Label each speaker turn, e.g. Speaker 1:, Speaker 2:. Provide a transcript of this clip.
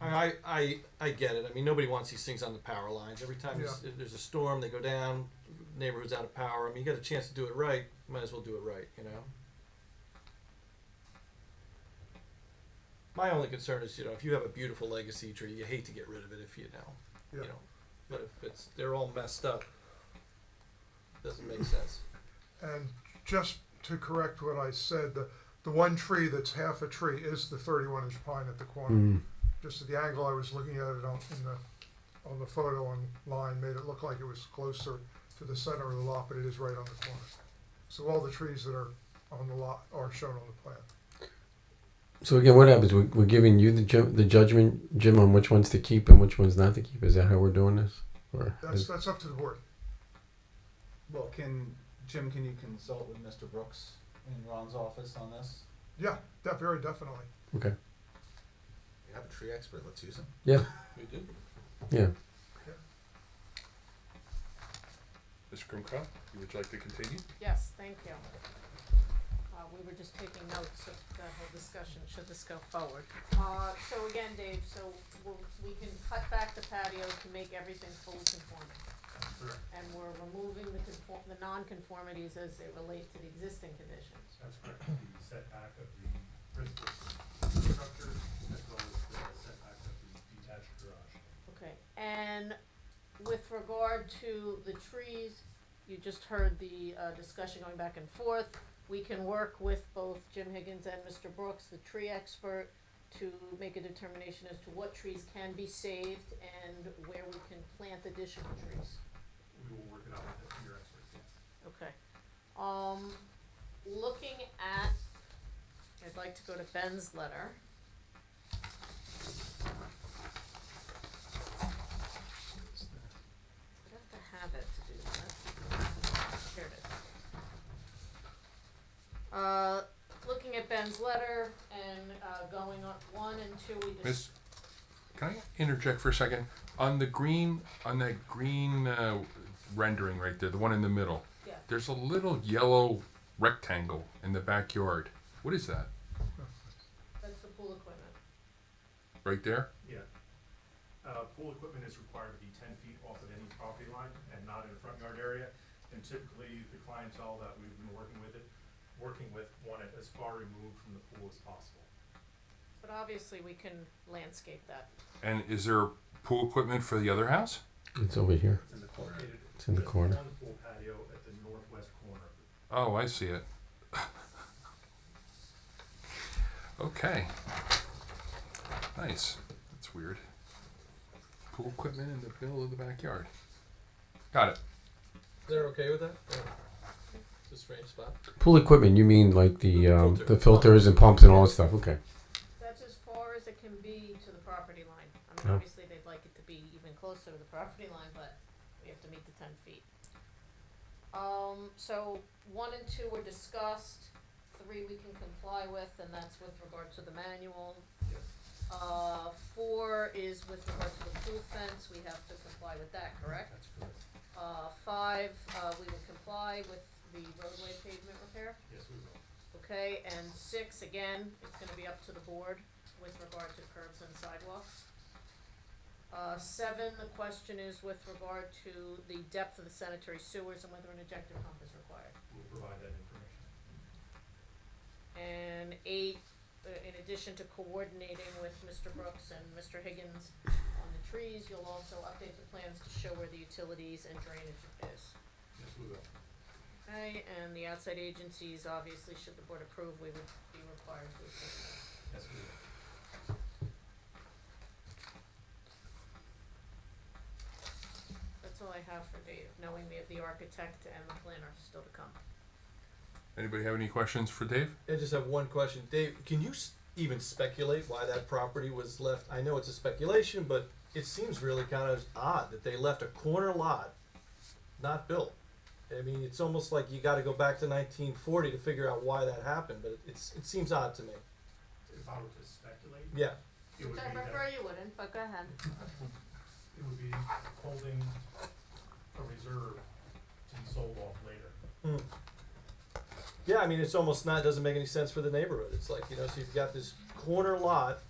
Speaker 1: I, I, I get it. I mean, nobody wants these things on the power lines. Every time there's-
Speaker 2: Yeah.
Speaker 1: if there's a storm, they go down, neighborhood's out of power. I mean, you got a chance to do it right, might as well do it right, you know? My only concern is, you know, if you have a beautiful legacy tree, you hate to get rid of it if you know,
Speaker 2: Yeah.
Speaker 1: you know. But if it's, they're all messed up, doesn't make sense.
Speaker 2: And just to correct what I said, the, the one tree that's half a tree is the thirty-one inch pine at the corner.
Speaker 3: Mm.
Speaker 2: Just at the angle I was looking at it on, in the, on the photo online, made it look like it was closer to the center of the lot, but it is right on the corner. So all the trees that are on the lot are shown on the plan.
Speaker 3: So again, what happens? We're, we're giving you the ju- the judgment, Jim, on which ones to keep and which ones not to keep. Is that how we're doing this? Or
Speaker 2: That's, that's up to the board.
Speaker 4: Well, can, Jim, can you consult with Mr. Brooks in Ron's office on this?
Speaker 2: Yeah, that very definitely.
Speaker 3: okay,
Speaker 5: We have a tree expert, let's use him.
Speaker 3: yeah,
Speaker 1: We do.
Speaker 3: yeah.
Speaker 6: Mr. Krumka, you would like to continue?
Speaker 7: Yes, thank you. Uh, we were just taking notes of the whole discussion, should this go forward. Uh, so again, Dave, so we'll, we can cut back the patio to make everything fully conforming.
Speaker 2: Correct.
Speaker 7: And we're removing the conform, the non-conformities as they relate to the existing conditions.
Speaker 8: That's correct, the setback of the principal structure as well as the setback of the detached garage.
Speaker 7: Okay, and with regard to the trees, you just heard the, uh, discussion going back and forth. We can work with both Jim Higgins and Mr. Brooks, the tree expert, to make a determination as to what trees can be saved and where we can plant additional trees.
Speaker 8: We will work it out with your experts, yes.
Speaker 7: Okay. Um, looking at, I'd like to go to Ben's letter. I'd have to have it to do that. Here it is. Uh, looking at Ben's letter and, uh, going on one and two, we just.
Speaker 6: Miss, can I interject for a second? On the green, on that green uh, rendering right there, the one in the middle,
Speaker 7: Yeah.
Speaker 6: there's a little yellow rectangle in the backyard. What is that?
Speaker 7: That's the pool equipment.
Speaker 6: Right there?
Speaker 8: Yeah. Uh, pool equipment is required to be ten feet off of any property line and not in a front yard area. And typically, the clientele that we've been working with it, working with want it as far removed from the pool as possible.
Speaker 7: But obviously, we can landscape that.
Speaker 6: And is there pool equipment for the other house?
Speaker 3: It's over here.
Speaker 8: It's in the corner.
Speaker 3: It's in the corner.
Speaker 8: On the pool patio at the northwest corner.
Speaker 6: Oh, I see it. okay. Nice. That's weird. Pool equipment in the middle of the backyard. Got it.
Speaker 1: They're okay with that? Yeah. It's a strange spot.
Speaker 3: Pool equipment. You mean like the um,
Speaker 1: Filter.
Speaker 3: the filters and pumps and all that stuff? Okay.
Speaker 7: That's as far as it can be to the property line. I
Speaker 3: Yeah.
Speaker 7: mean, obviously, they'd like it to be even closer to the property line, but we have to meet the ten feet. Um, so one and two were discussed, three we can comply with, and that's with regard to the manual.
Speaker 8: Yes.
Speaker 7: Uh, four is with regard to the pool fence, we have to comply with that, correct?
Speaker 8: That's correct.
Speaker 7: Uh, five, uh, we would comply with the roadway pavement repair.
Speaker 8: Yes, we will.
Speaker 7: Okay, and six, again, it's gonna be up to the board with regard to curbs and sidewalks. Uh, seven, the question is with regard to the depth of the sanitary sewers and whether an ejector pump is required.
Speaker 8: We'll provide that information.
Speaker 7: And eight, uh, in addition to coordinating with Mr. Brooks and Mr. Higgins on the trees, you'll also update the plans to show where the utilities and drainage is.
Speaker 8: Yes, we will.
Speaker 7: Okay, and the outside agencies, obviously, should the board approve, we would be required to approve.
Speaker 8: Yes, we will.
Speaker 7: That's all I have for Dave, knowing we have the architect and the planner still to come.
Speaker 6: Anybody have any questions for Dave?
Speaker 1: I just have one question, Dave. Can you s- even speculate why that property was left? I know it's a speculation, but it seems really kind of odd that they left a corner lot not built. I mean, it's almost like you got to go back to 1940 to figure out why that happened, but it's it seems odd to me.
Speaker 8: If I were to speculate,
Speaker 1: Yeah,
Speaker 8: it would be
Speaker 7: Which I
Speaker 8: that.
Speaker 7: prefer you wouldn't, but go ahead.
Speaker 8: it would be holding a reserve to be sold off later.
Speaker 1: yeah. I mean, it's almost not doesn't make any sense for the neighborhood. It's like you know, so you've got this corner lot